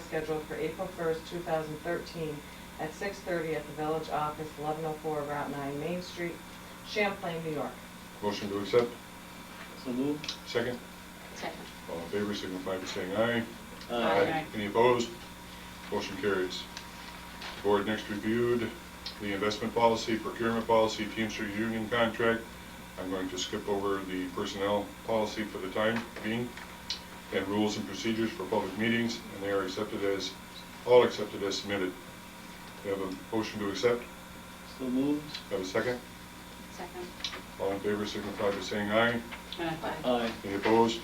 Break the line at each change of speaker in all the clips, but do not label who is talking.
scheduled for April first, two thousand thirteen, at six thirty at the village office, eleven oh four Route nine Main Street, Champlain, New York.
Motion to accept,
So moved.
second.
Second.
All in favor, signify by saying aye.
Aye.
Any opposed? Motion carries. Board next reviewed the investment policy, procurement policy, Teamster union contract. I'm going to skip over the personnel policy for the time being, and rules and procedures for public meetings, and they are accepted as, all accepted as submitted. We have a motion to accept,
So moved.
have a second.
Second.
All in favor signify by saying aye.
Aye.
Aye.
Any opposed?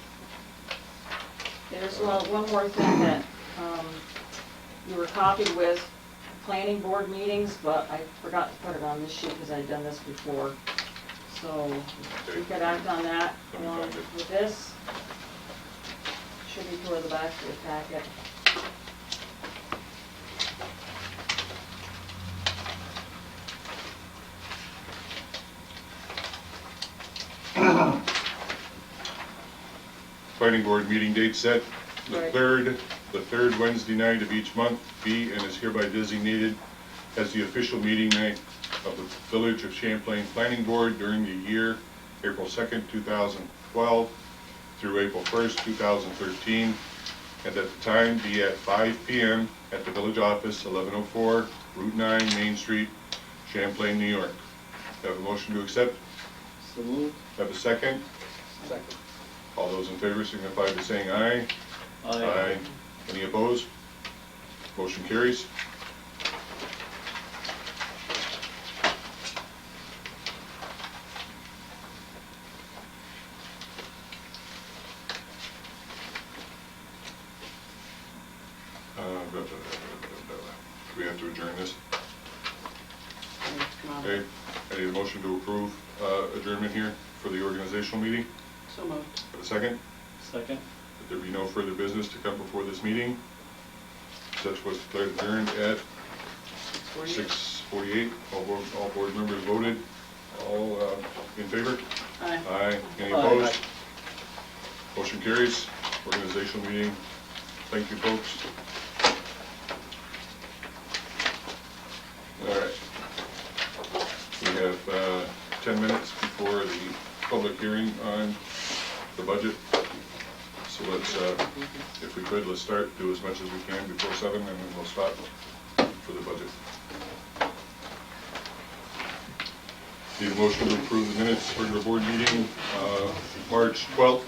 There's uh, one more thing that um, you were copied with, planning board meetings, but I forgot to put it on this sheet because I'd done this before. So we could act on that along with this. Should be toward the back of your packet.
Planning board meeting date set, the
Right.
third, the third Wednesday night of each month be and is hereby designated as the official meeting night of the Village of Champlain Planning Board during the year, April second, two thousand twelve through April first, two thousand thirteen, and that the time be at five P M. at the village office, eleven oh four, Route nine, Main Street, Champlain, New York. Have a motion to accept,
So moved.
have a second?
Second.
All those in favor signify by saying aye.
Aye.
Any opposed? Motion carries. Uh, blah, blah, blah, blah, blah, blah. We have to adjourn this. Okay,
Uh-huh.
I need a motion to approve uh, adjournment here for the organizational meeting.
So moved.
Have a second?
Second.
That there be no further business to come before this meeting. Such was declared adjourned at six forty-eight. All board, all board members voted. All uh, in favor?
Aye.
Aye. Any
Aye.
opposed? Motion carries. Organizational meeting. Thank you, folks. All right. We have uh, ten minutes before the public hearing on the budget. So let's, uh, if we could, let's start, do as much as we can before seven, and then we'll stop for the budget. Need a motion to approve the minutes for your board meeting, uh, March 12th.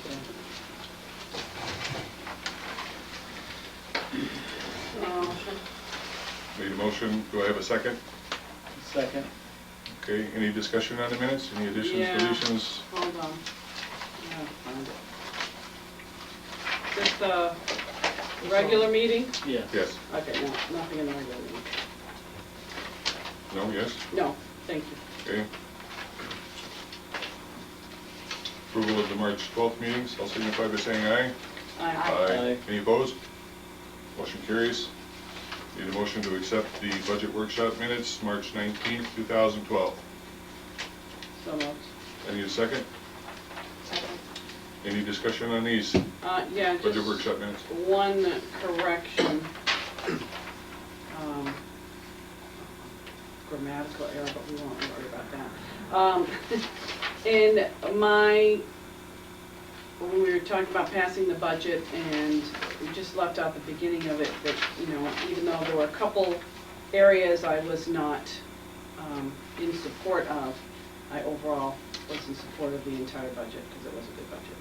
Need a motion, do I have a second?
Second.
Okay, any discussion on the minutes, any additions,
Yeah.
deletions?
Hold on. Yeah, fine. Just the regular meeting?
Yes.
Yes,
Okay, no, nothing in the regular meeting.
no, yes,
No, thank you.
okay. Approval of the March 12th meetings, I'll signify by saying aye.
Aye.
Any opposed? Motion carries. Need a motion to accept the budget workshop minutes, March 19th, 2012.
So moved.
I need a second.
Second.
Any discussion on these
Uh, yeah,
budget
just
workshop minutes?
one correction. Um, Grammatical error, but we won't worry about that. Um, in my, when we were talking about passing the budget and we just left out the beginning of it, that, you know, even though there were a couple areas I was not, um, in support of, I overall was in support of the entire budget, because it was a good budget.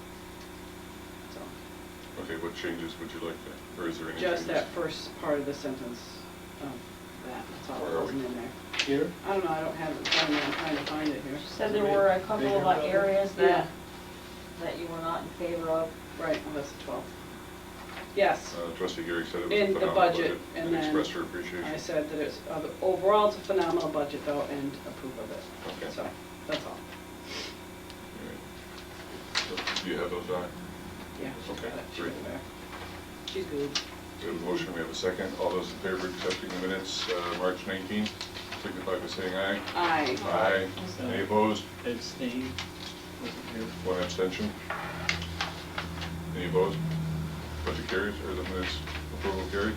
So.
Okay, what changes would you like to, or is there any changes?
Just that first part of the sentence of that, that's all
Where
that
are
wasn't in there.
Here?
I don't know, I don't have it in front of me, I'm trying to find it here.
Said there were a couple of uh, areas
Yeah,
that, that you were not in favor of.
right, well, that's the 12th. Yes,
Uh, Trustee Gary said it was a
In the
phenomenal
budget,
budget
and
and
then
expressed her
I
appreciation.
said that it's, uh, overall, it's a phenomenal budget though, and approve of
Okay.
it. So, that's all,
All right. So, Do you have those on?
yeah.
Okay,
Got it. She's
great.
aware. She's good.
We have a motion, we have a second. All those in favor of accepting the minutes, uh, March 19th, signify by saying aye.
Aye.
Aye. Any opposed?
Abstain. Wasn't here.
One abstention. Any opposed? Budget carries, or the minutes approval carried?